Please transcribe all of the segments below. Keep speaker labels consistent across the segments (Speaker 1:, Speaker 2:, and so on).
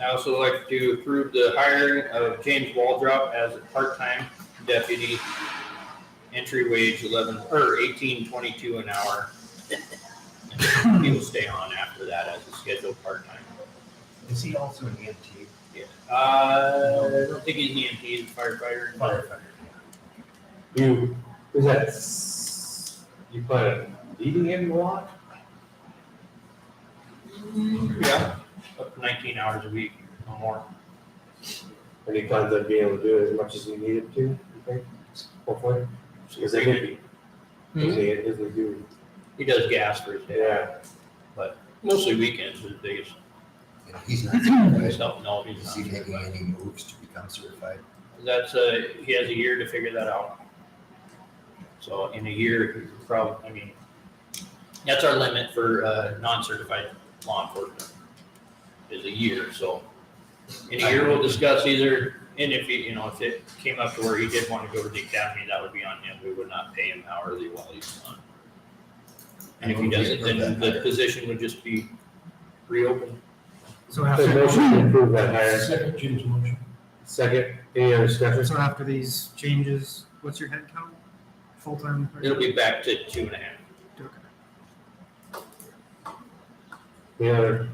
Speaker 1: I also like to approve the hiring of James Waldrop as a part-time deputy. Entry wage eleven, or eighteen twenty-two an hour. He will stay on after that as a scheduled part-time.
Speaker 2: Is he also an E EMT?
Speaker 1: Yeah. Uh, I don't think he's an EMT, he's a firefighter.
Speaker 2: Firefighter.
Speaker 3: You, is that, s- you plan on leaving him a lot?
Speaker 1: Yeah, up to nineteen hours a week, no more.
Speaker 3: And he plans on being able to do it as much as he needed to, you think, hopefully? Because they could be. Is he, is he doing,
Speaker 1: He does gas for his day,
Speaker 3: yeah,
Speaker 1: mostly weekends is the biggest,
Speaker 4: And he's not certified.
Speaker 1: myself, no, he's
Speaker 4: Is
Speaker 1: not.
Speaker 4: he making any moves to become certified?
Speaker 1: That's a, he has a year to figure that out. So in a year, probably, I mean, that's our limit for, uh, non-certified law enforcement is a year, so. In a year, we'll discuss either, and if he, you know, if it came up to where he did want to go to the academy, that would be on him. We would not pay him hourly while he's on. And if he doesn't, then the position would just be reopened.
Speaker 2: So
Speaker 3: so motion to approve that
Speaker 4: Uh,
Speaker 3: hire,
Speaker 2: Second Jim's motion.
Speaker 3: second, any other discussion?
Speaker 5: So after these changes, what's your head count? Full-time? person?
Speaker 1: It'll be back to two and a half.
Speaker 5: Okay.
Speaker 3: Any other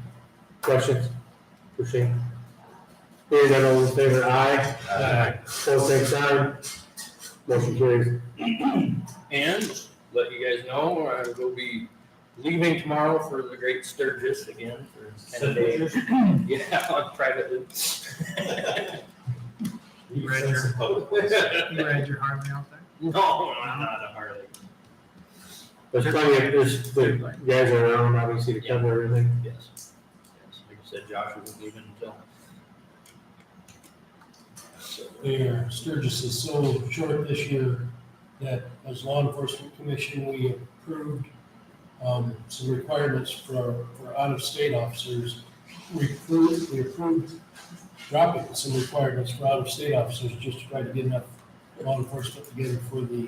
Speaker 3: questions? Pushing. Hearing none, all in favor, aye,
Speaker 4: Aye.
Speaker 3: all same sign, motion carries.
Speaker 1: And let you guys know, I will be leaving tomorrow for the Great Sturgis again for ten days. Yeah, on private. loop.
Speaker 2: You read your-
Speaker 5: You ride your Harley out there?
Speaker 1: No, I'm not a Harley.
Speaker 3: There's plenty of, there's, the guys are around, obviously, to cover everything.
Speaker 1: Yes. Yes, like I said, Josh wasn't leaving until. So,
Speaker 2: Mayor Sturgis is so short this year that as law enforcement commission, we approved um, some requirements for, for out-of-state officers. We approved, we approved dropping some requirements for out-of-state officers just to try to get enough law enforcement together for the.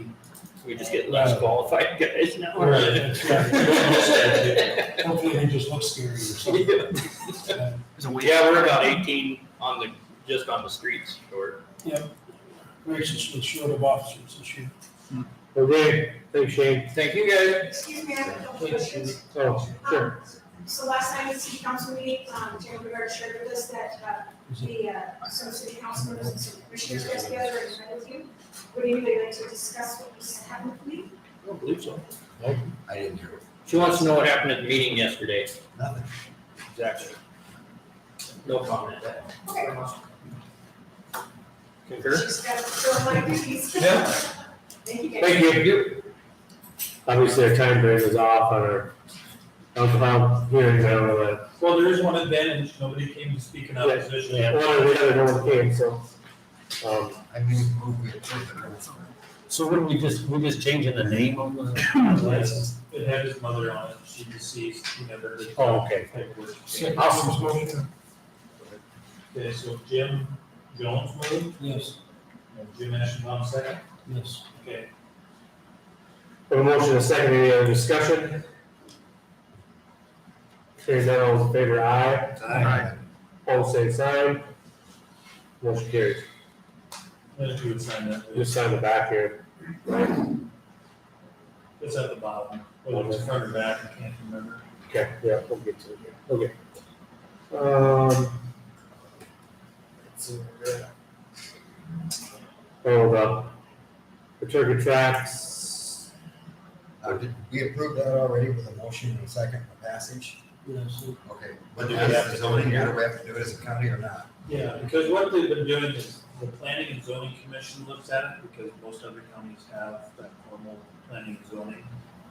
Speaker 1: We just get less qualified guys now.
Speaker 2: That's right. Hopefully they just look scary or something. Uh,
Speaker 5: There's a wait.
Speaker 1: Yeah, we're about eighteen on the, just on the streets or
Speaker 2: Graciously short of officers this year.
Speaker 3: Okay, thanks Shane.
Speaker 1: Thank you guys.
Speaker 6: Excuse me, I have a couple
Speaker 2: Please,
Speaker 6: questions.
Speaker 3: Oh, sure.
Speaker 6: Um, So last time at city council meeting, um, Jerry Rivera shared with us that, uh, the, uh, some city council members and some commissioners got together and met with you. Would anybody like to discuss what was happening with me?
Speaker 1: I don't believe so.
Speaker 4: I didn't hear
Speaker 1: She wants to know what happened at the meeting yesterday.
Speaker 4: nothing.
Speaker 1: Exactly. No comment.
Speaker 6: Okay.
Speaker 1: Concur?
Speaker 6: She's got to fill my duties.
Speaker 1: Yeah.
Speaker 6: Thank you guys.
Speaker 3: Thank you. Obviously, our time frame is off on our alcohol hearings, I don't know that.
Speaker 7: Well, there is one advantage, nobody came to speak in opposition.
Speaker 3: One or the other, no one came, so. Um,
Speaker 4: I mean, move we approve the rules.
Speaker 8: So what are we just, we're just changing the name of
Speaker 7: The
Speaker 8: the license?
Speaker 7: license, It had his mother on it, she deceased, he never did.
Speaker 8: Oh, okay.
Speaker 7: paperwork.
Speaker 3: Awesome.
Speaker 2: motion.
Speaker 7: Okay, so Jim Jones moved,
Speaker 2: Yes,
Speaker 7: and Jim Ashenbaum second.
Speaker 2: yes.
Speaker 7: Okay,
Speaker 3: have a motion, a second, any other discussion? Hearing none, all in favor, aye.
Speaker 4: Aye.
Speaker 3: All same sign. Motion carries.
Speaker 7: then you would sign that.
Speaker 3: Just sign the back here.
Speaker 7: It's at the bottom, whether it's front or back, I can't remember.
Speaker 3: Okay, yeah, we'll get to it here. Okay. Um. Hold up. The turkey tracks.
Speaker 4: Uh, did we approve that already with a motion and second for passage?
Speaker 2: Yes,
Speaker 4: Okay. But do we have to zoning, do we have to do it as a county or not?
Speaker 7: Yeah, because what they've been doing is the planning and zoning commission looks at it because most other counties have that formal planning and zoning.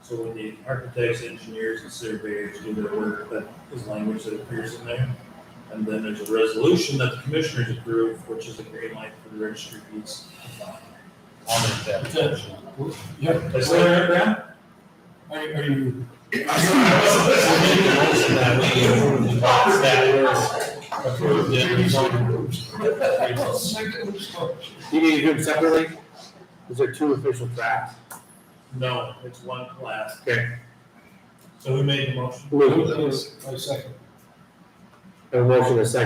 Speaker 7: So when the architects, engineers and surveyors do their work, that is language that appears in there. And then there's a resolution that the commissioners approve, which is a green light for the registry deeds.
Speaker 4: On that.
Speaker 2: Yep.
Speaker 7: Is there a grant?
Speaker 2: Are, are you?
Speaker 3: You need to do them separately? Is there two official tracks?
Speaker 7: No, it's one class.
Speaker 3: Okay.
Speaker 7: So who made the motion?
Speaker 3: Luke,
Speaker 2: I second.
Speaker 3: a motion, a second.